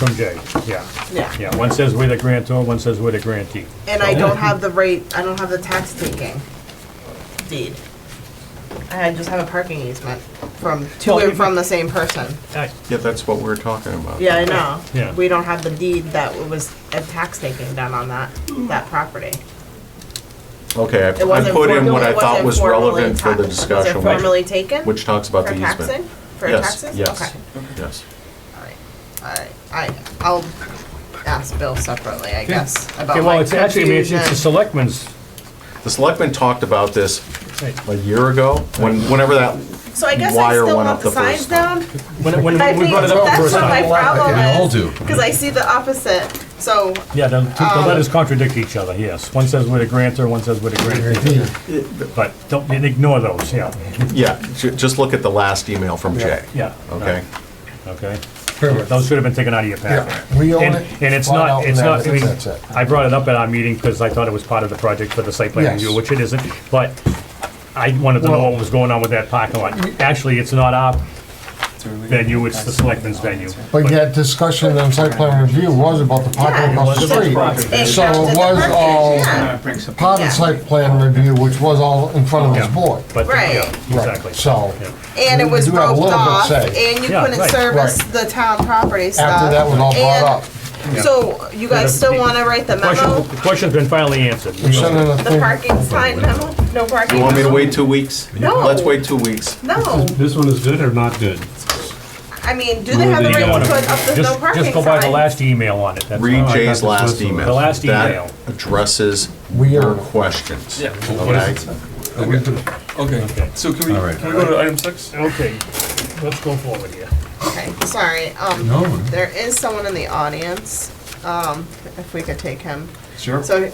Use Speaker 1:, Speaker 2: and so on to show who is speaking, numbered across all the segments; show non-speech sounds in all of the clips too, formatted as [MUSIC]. Speaker 1: From Jay, yeah.
Speaker 2: Yeah.
Speaker 1: Yeah, one says we're the grantor, one says we're the grantee.
Speaker 2: And I don't have the right, I don't have the tax taking deed. I just have a parking easement from, to and from the same person.
Speaker 1: Aye.
Speaker 3: Yeah, that's what we're talking about.
Speaker 2: Yeah, I know.
Speaker 1: Yeah.
Speaker 2: We don't have the deed that it was a tax taking done on that, that property.
Speaker 3: Okay, I-
Speaker 2: It
Speaker 3: I
Speaker 2: wasn't
Speaker 3: put in
Speaker 2: formally-
Speaker 3: what I
Speaker 2: it
Speaker 3: thought
Speaker 2: wasn't
Speaker 3: was
Speaker 2: formally
Speaker 3: relevant for the
Speaker 2: ta-
Speaker 3: discussion,
Speaker 2: Was it formally
Speaker 3: which-
Speaker 2: taken?
Speaker 3: which talks about
Speaker 2: For
Speaker 3: the
Speaker 2: taxing?
Speaker 3: easement.
Speaker 2: For
Speaker 3: Yes,
Speaker 2: taxes?
Speaker 3: Yes,
Speaker 2: Okay.
Speaker 3: yes.
Speaker 2: Alright, alright, I, I'll ask Bill separately, I guess, about
Speaker 1: Okay, well,
Speaker 2: my
Speaker 1: it's actually, I mean, it's it's the
Speaker 2: confusion.
Speaker 1: selectmen's,
Speaker 3: The selectmen talked about this
Speaker 1: right.
Speaker 3: a year ago, when, whenever that,
Speaker 2: So I guess I
Speaker 3: wire
Speaker 2: still want
Speaker 3: went up
Speaker 2: the
Speaker 3: the
Speaker 2: signs
Speaker 3: first
Speaker 2: down,
Speaker 1: when, when
Speaker 2: I
Speaker 1: we
Speaker 2: think
Speaker 1: brought it up the
Speaker 2: that's
Speaker 1: first
Speaker 2: what my
Speaker 1: time.
Speaker 2: problem
Speaker 4: We all
Speaker 2: is,
Speaker 4: do.
Speaker 2: cause I see the opposite, so,
Speaker 1: Yeah, the,
Speaker 2: Oh.
Speaker 1: the letters contradict each other, yes. One says we're the grantor, one says we're the grantee. But don't, and ignore those, yeah,
Speaker 3: yeah, ju- just look at the last email from Jay.
Speaker 1: yeah.
Speaker 3: Okay?
Speaker 1: Okay?
Speaker 4: Perfect.
Speaker 1: Those should have been taken out of your packet.
Speaker 4: Yeah, we own
Speaker 1: And-
Speaker 4: it,
Speaker 1: And it's
Speaker 4: flat out
Speaker 1: not,
Speaker 4: and
Speaker 1: it's not,
Speaker 4: that's
Speaker 1: I
Speaker 4: it,
Speaker 1: mean,
Speaker 4: that's it.
Speaker 1: I brought it up at our meeting because I thought it was part of the project for the site plan
Speaker 4: Yes.
Speaker 1: review, which it isn't, but I wanted to know
Speaker 4: Well-
Speaker 1: what was going on with that parking lot. Actually, it's not our venue, it's the selectmen's venue.
Speaker 4: But yet discussion and site plan review was about the parking
Speaker 2: Yeah.
Speaker 4: across the street.
Speaker 2: it
Speaker 4: So
Speaker 2: counts as
Speaker 4: it
Speaker 2: a
Speaker 4: was
Speaker 2: purchase,
Speaker 4: all
Speaker 2: yeah.
Speaker 4: part
Speaker 2: Yeah.
Speaker 4: of site plan review, which was all in front of this
Speaker 1: Yeah.
Speaker 4: board.
Speaker 1: But,
Speaker 2: Right.
Speaker 1: yeah,
Speaker 4: Right,
Speaker 1: exactly.
Speaker 4: So
Speaker 1: Yeah.
Speaker 2: And it
Speaker 4: We
Speaker 2: was
Speaker 4: do have a
Speaker 2: roped
Speaker 4: little bit of
Speaker 2: off,
Speaker 4: say.
Speaker 2: and you
Speaker 1: Yeah,
Speaker 2: couldn't
Speaker 1: right.
Speaker 2: service
Speaker 4: Right.
Speaker 2: the town property stuff.
Speaker 4: after that was all brought
Speaker 2: And
Speaker 4: up,
Speaker 2: So you guys still wanna write the memo,
Speaker 1: Question, the question's been finally answered.
Speaker 4: you sent in a
Speaker 2: the
Speaker 4: thing.
Speaker 2: parking sign memo, no parking?
Speaker 3: You want me to
Speaker 2: memo?
Speaker 3: wait two weeks?
Speaker 2: No.
Speaker 3: Let's wait two weeks.
Speaker 2: No,
Speaker 5: This one is good or not good?
Speaker 2: I mean, do they have the
Speaker 5: Well,
Speaker 1: You
Speaker 2: right
Speaker 1: wanna-
Speaker 2: to put up the no
Speaker 1: Just,
Speaker 2: parking sign?
Speaker 1: just go by the last email on it, that's all.
Speaker 3: Read
Speaker 5: thought
Speaker 3: Jay's
Speaker 5: this was
Speaker 3: last
Speaker 5: the-
Speaker 3: email.
Speaker 1: The last
Speaker 3: That
Speaker 1: email.
Speaker 3: addresses
Speaker 4: We
Speaker 3: your
Speaker 4: are-
Speaker 3: questions. Yeah.
Speaker 1: Okay.
Speaker 6: Okay, so can we,
Speaker 4: right.
Speaker 6: can we go to item six?
Speaker 1: Okay, let's go forward here.
Speaker 2: Okay, sorry, um,
Speaker 4: No.
Speaker 2: there is someone in the audience, um, if we could take him.
Speaker 6: Sure.
Speaker 2: So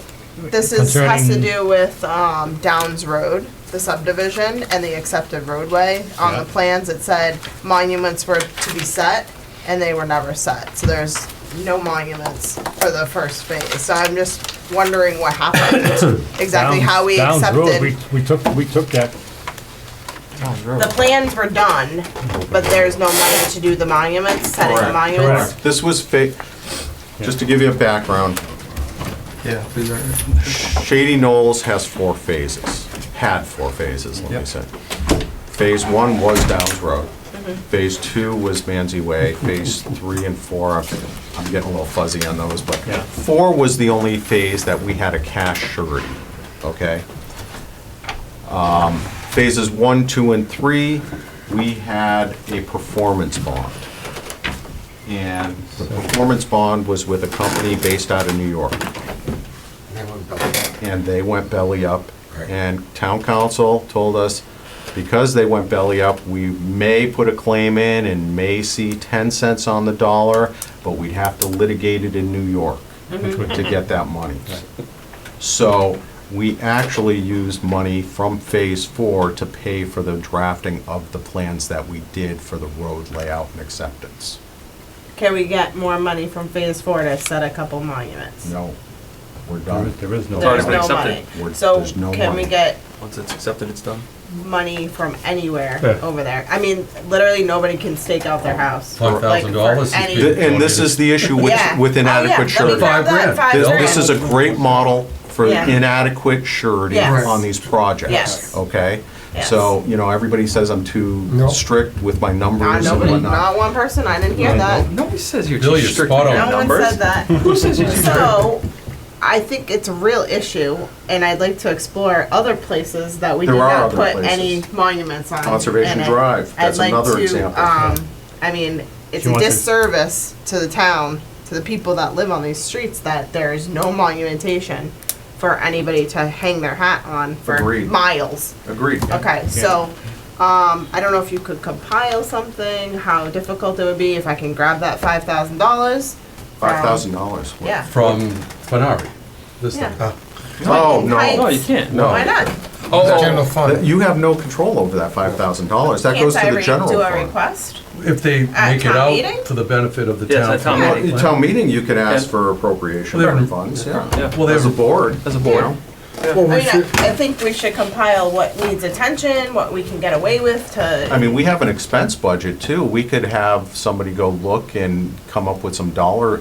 Speaker 2: this is, has to
Speaker 1: Concerning-
Speaker 2: do with, um, Downs Road, the subdivision and the accepted roadway. On the
Speaker 1: Yeah.
Speaker 2: plans, it said monuments were to be set and they were never set. So there's no monuments for the first phase. So I'm just wondering
Speaker 1: [COUGHS]
Speaker 2: what happened, exactly how we
Speaker 1: Downs- Downs Road,
Speaker 2: accepted.
Speaker 1: We, we took, we took that,
Speaker 2: The plans were done, but there's no money to do the monuments, setting the
Speaker 3: Correct,
Speaker 2: monuments.
Speaker 3: This was fa, just to give you a background,
Speaker 6: Yeah. please, right.
Speaker 3: Shady Knolls has four phases, had four phases, let me say. Phase one was Downs Road. Phase two was Manzi Way. Phase three and four, I'm I'm getting a little fuzzy on those, but
Speaker 1: Yeah.
Speaker 3: four was the only phase that we had a cash surety, okay? Um, Phases one, two, and three, we had a performance bond. And the performance bond was with a company based out of New York and they went belly up. And town council told us, because they went belly up, we may put a claim in and may see 10 cents on the dollar, but we'd have to litigate it in New York to get that money. So we actually used money from Phase Four to pay for the drafting of the plans that we did for the road layout and acceptance.
Speaker 2: Can we get more money from phase four to set a couple monuments?
Speaker 3: No, we're
Speaker 1: there
Speaker 3: done.
Speaker 1: is- there is no.
Speaker 2: There's
Speaker 6: been
Speaker 2: no money.
Speaker 6: accepted.
Speaker 3: We're-
Speaker 2: So
Speaker 3: there's no
Speaker 2: can we
Speaker 3: money.
Speaker 2: get
Speaker 6: Once it's accepted, it's done.
Speaker 2: money from anywhere
Speaker 5: Yeah.
Speaker 2: over there? I mean, literally nobody can stake out their house.
Speaker 6: Like,
Speaker 2: Like, for
Speaker 6: $5,000 is
Speaker 2: any-
Speaker 6: big.
Speaker 3: And this is the issue with
Speaker 2: Yeah.
Speaker 3: with
Speaker 2: Oh, yeah,
Speaker 3: inadequate
Speaker 2: let me
Speaker 3: surety.
Speaker 2: grab
Speaker 6: Five
Speaker 2: that,
Speaker 6: grand.
Speaker 2: five
Speaker 3: This,
Speaker 2: grand.
Speaker 3: this is a great model for
Speaker 2: Yeah.
Speaker 3: inadequate surety
Speaker 2: Yes.
Speaker 3: on these projects.
Speaker 2: Yes.
Speaker 3: Okay? So, you know, everybody says I'm too
Speaker 4: Nope.
Speaker 3: strict with my
Speaker 2: Not
Speaker 3: numbers and
Speaker 2: Ah, nobody,
Speaker 3: whatnot.
Speaker 2: not one person, I didn't hear that.
Speaker 6: Nobody says you're
Speaker 7: Bill,
Speaker 6: too
Speaker 7: you're
Speaker 6: strict
Speaker 7: spot
Speaker 6: with your
Speaker 7: on.
Speaker 2: No one
Speaker 6: numbers.
Speaker 2: said that.
Speaker 3: [LAUGHS]
Speaker 6: Who says you're too strict?
Speaker 2: So, I think it's a real issue, and I'd like to explore other places that we did
Speaker 3: There are
Speaker 2: not
Speaker 3: other
Speaker 2: put
Speaker 3: places.
Speaker 2: any monuments on.
Speaker 3: Conservation
Speaker 2: And I-
Speaker 3: Drive, that's
Speaker 2: I'd like
Speaker 3: another
Speaker 2: to,
Speaker 3: example.
Speaker 2: um, I mean, it's
Speaker 1: She
Speaker 2: a
Speaker 1: wants to-
Speaker 2: disservice to the town, to the people that live on these streets, that there is no monumentation for anybody to hang their hat on for
Speaker 3: Agreed.
Speaker 2: miles.
Speaker 3: Agreed.
Speaker 2: Okay, so, um, I don't know if you could compile something, how difficult it would be, if I can grab that five thousand dollars.
Speaker 3: Five thousand dollars.
Speaker 2: Yeah.
Speaker 7: From Fenari, this thing.
Speaker 2: Yeah.
Speaker 3: Oh,
Speaker 6: No,
Speaker 3: no,
Speaker 6: you can't.
Speaker 3: no.
Speaker 2: Why not?
Speaker 1: Oh,
Speaker 4: General
Speaker 3: That-
Speaker 4: fund.
Speaker 3: You have no control over that five thousand dollars. That
Speaker 2: Can't
Speaker 3: goes
Speaker 2: I
Speaker 3: to the
Speaker 2: re-
Speaker 3: general
Speaker 2: do a
Speaker 3: fund.
Speaker 2: request?
Speaker 7: If they
Speaker 2: At
Speaker 7: make it
Speaker 2: town meeting?
Speaker 7: out for the benefit of the
Speaker 6: Yes,
Speaker 7: town.
Speaker 6: at town
Speaker 7: for-
Speaker 3: Well, at town meeting, you could ask
Speaker 6: Yeah.
Speaker 3: for appropriation
Speaker 7: Well, they
Speaker 3: from
Speaker 7: have-
Speaker 3: funds, yeah.
Speaker 6: Yeah.
Speaker 7: Well, they
Speaker 3: As
Speaker 7: have
Speaker 3: a board.
Speaker 6: As a board.
Speaker 3: you know.
Speaker 2: I mean, I, I think we should compile what needs attention, what we can get away with to.
Speaker 3: I mean, we have an expense budget too. We could have somebody go look and come up with some dollar